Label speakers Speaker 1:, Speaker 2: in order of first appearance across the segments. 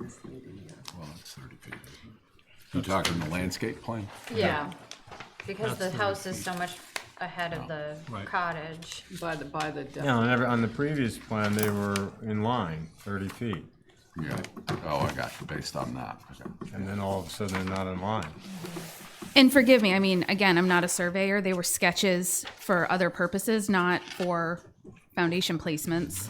Speaker 1: this meeting here.
Speaker 2: Well, it's thirty feet. You talking the landscape plan?
Speaker 3: Yeah, because
Speaker 4: That's
Speaker 3: the
Speaker 4: the
Speaker 3: house is so much ahead of the
Speaker 4: Right.
Speaker 3: cottage.
Speaker 1: By the, by the depth.
Speaker 5: Yeah, on every, on the previous plan, they were in line, thirty feet,
Speaker 2: Yeah, oh, I got you, based on that, okay.
Speaker 5: and then all of a sudden they're not in line.
Speaker 6: And forgive me, I mean, again, I'm not a surveyor. They were sketches for other purposes, not for foundation placements.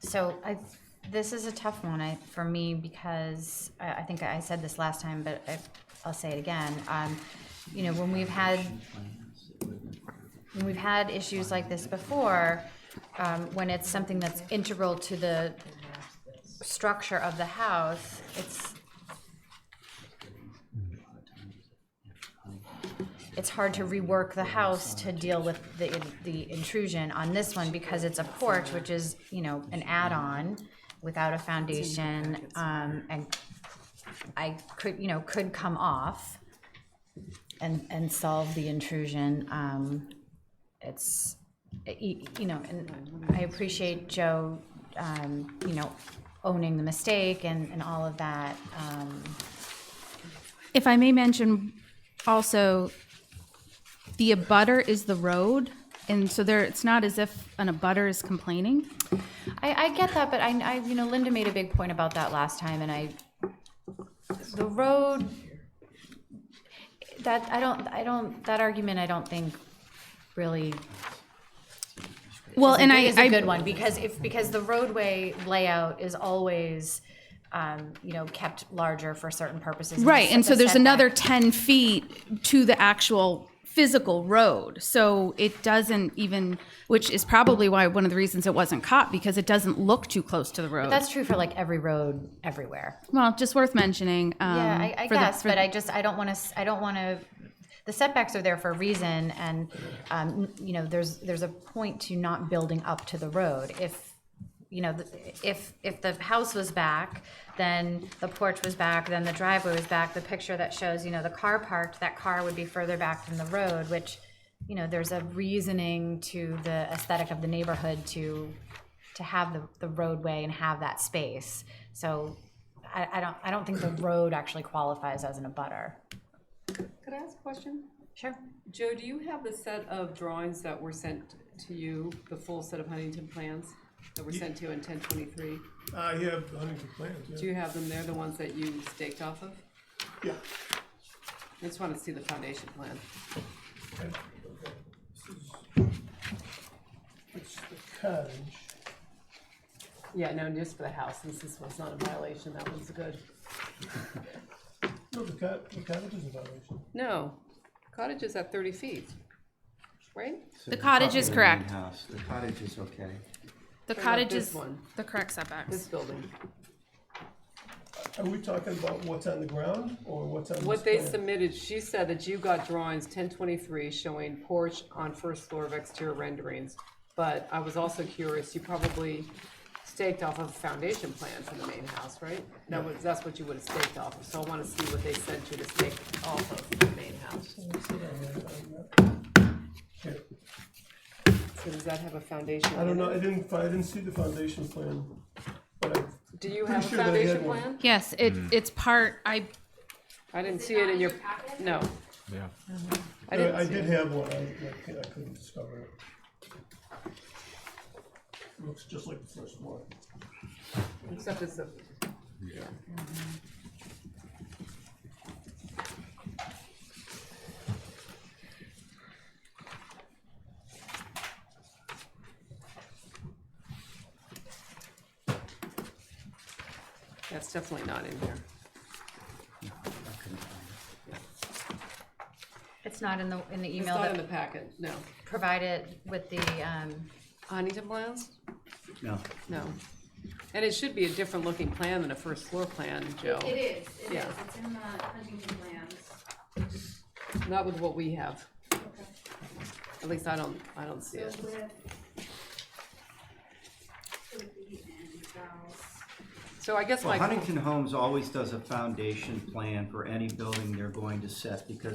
Speaker 3: So I, this is a tough one I, for me because I, I think I said this last time, but I, I'll say it again. Um, you know, when we've had when we've had issues like this before, um, when it's something that's integral to the structure of the house, it's it's hard to rework the house to deal with the, the intrusion on this one because it's a porch, which is, you know, an add-on without a foundation, um, and I could, you know, could come off and, and solve the intrusion, um, it's, you, you know, and I appreciate Joe, um, you know, owning the mistake and, and all of that, um,
Speaker 6: If I may mention also, the abutter is the road. And so there, it's not as if an abutter is complaining.
Speaker 3: I, I get that, but I, I, you know, Linda made a big point about that last time, and I, the road, that, I don't, I don't, that argument, I don't think really
Speaker 6: Well, and I,
Speaker 3: is
Speaker 6: I-
Speaker 3: a good one, because if, because the roadway layout is always, um, you know, kept larger for certain purposes.
Speaker 6: Right, and so
Speaker 3: the
Speaker 6: there's another
Speaker 3: setback-
Speaker 6: ten feet to the actual physical road, so it doesn't even, which is probably why, one of the reasons it wasn't caught, because it doesn't look too close to the road.
Speaker 3: That's true for like every road, everywhere.
Speaker 6: Well, just worth mentioning, um.
Speaker 3: Yeah, I, I
Speaker 6: for the-
Speaker 3: guess,
Speaker 6: for-
Speaker 3: but I just, I don't want to, I don't want to, the setbacks are there for a reason, and, um, you know, there's, there's a point to not building up to the road. If, you know, the- if, if the house was back, then the porch was back, then the driveway was back, the picture that shows, you know, the car parked, that car would be further back from the road, which, you know, there's a reasoning to the aesthetic of the neighborhood to, to have the, the roadway and have that space. So I, I don't, I don't think the road actually qualifies as an abutter.
Speaker 1: Could I ask a question?
Speaker 3: Sure.
Speaker 1: Joe, do you have the set of drawings that were sent to you, the full set of Huntington plans that were sent to you in ten twenty-three?
Speaker 4: I have Uh, Huntington plans,
Speaker 1: Do you have them there, the ones that you staked off of?
Speaker 4: Yeah.
Speaker 1: I just wanna see the foundation plan.
Speaker 4: It's the cottage.
Speaker 1: Yeah, no, just for the house, since this one's not a violation, that one's good.
Speaker 4: No, the cot, the cottage is a violation.
Speaker 1: No, cottage is at thirty feet, right?
Speaker 6: The cottage is correct.
Speaker 7: House, the cottage is okay.
Speaker 6: The
Speaker 1: about
Speaker 6: cottage
Speaker 1: this
Speaker 6: is
Speaker 1: one?
Speaker 6: the correct setbacks.
Speaker 1: This building.
Speaker 4: Are we talking about what's on the ground or what's on this plan?
Speaker 1: What they submitted, she said that you got drawings ten twenty-three showing porch on first floor of exterior renderings. But I was also curious, you probably staked off of a foundation plan for the main house, right? That was, that's what you would have staked off of, so I wanna see what they sent you to stake off of the main house.
Speaker 4: Here.
Speaker 1: So does that have a foundation?
Speaker 4: I don't
Speaker 1: in
Speaker 4: know,
Speaker 1: it?
Speaker 4: I didn't, fi- I didn't see the foundation plan, but I,
Speaker 1: Do you
Speaker 4: Pretty
Speaker 1: have a
Speaker 4: sure that I had
Speaker 1: foundation
Speaker 4: one.
Speaker 1: plan?
Speaker 6: Yes, it, it's part, I,
Speaker 1: I didn't see it in your, no,
Speaker 5: Yeah.
Speaker 1: I
Speaker 4: I I
Speaker 1: didn't see
Speaker 4: did
Speaker 1: it.
Speaker 4: have one, I, I cou- I couldn't discover it. Looks just like the first one.
Speaker 1: Except it's a, that's definitely not in here.
Speaker 3: It's not in the, in the
Speaker 1: It's
Speaker 3: email
Speaker 1: not in the
Speaker 3: that
Speaker 1: packet, no.
Speaker 3: provided with the, um,
Speaker 1: Huntington plans?
Speaker 7: No,
Speaker 1: No. And it should be a different looking plan than a first floor plan, Joe.
Speaker 8: It is, it is,
Speaker 1: Yeah.
Speaker 8: it's in the Huntington plans.
Speaker 1: Not with what we have.
Speaker 8: Okay.
Speaker 1: At least I don't, I don't see
Speaker 8: So
Speaker 1: it.
Speaker 8: with. with the end house.
Speaker 1: So I guess
Speaker 7: well,
Speaker 1: my.
Speaker 7: Huntington Homes always does a foundation plan for any building they're going to set because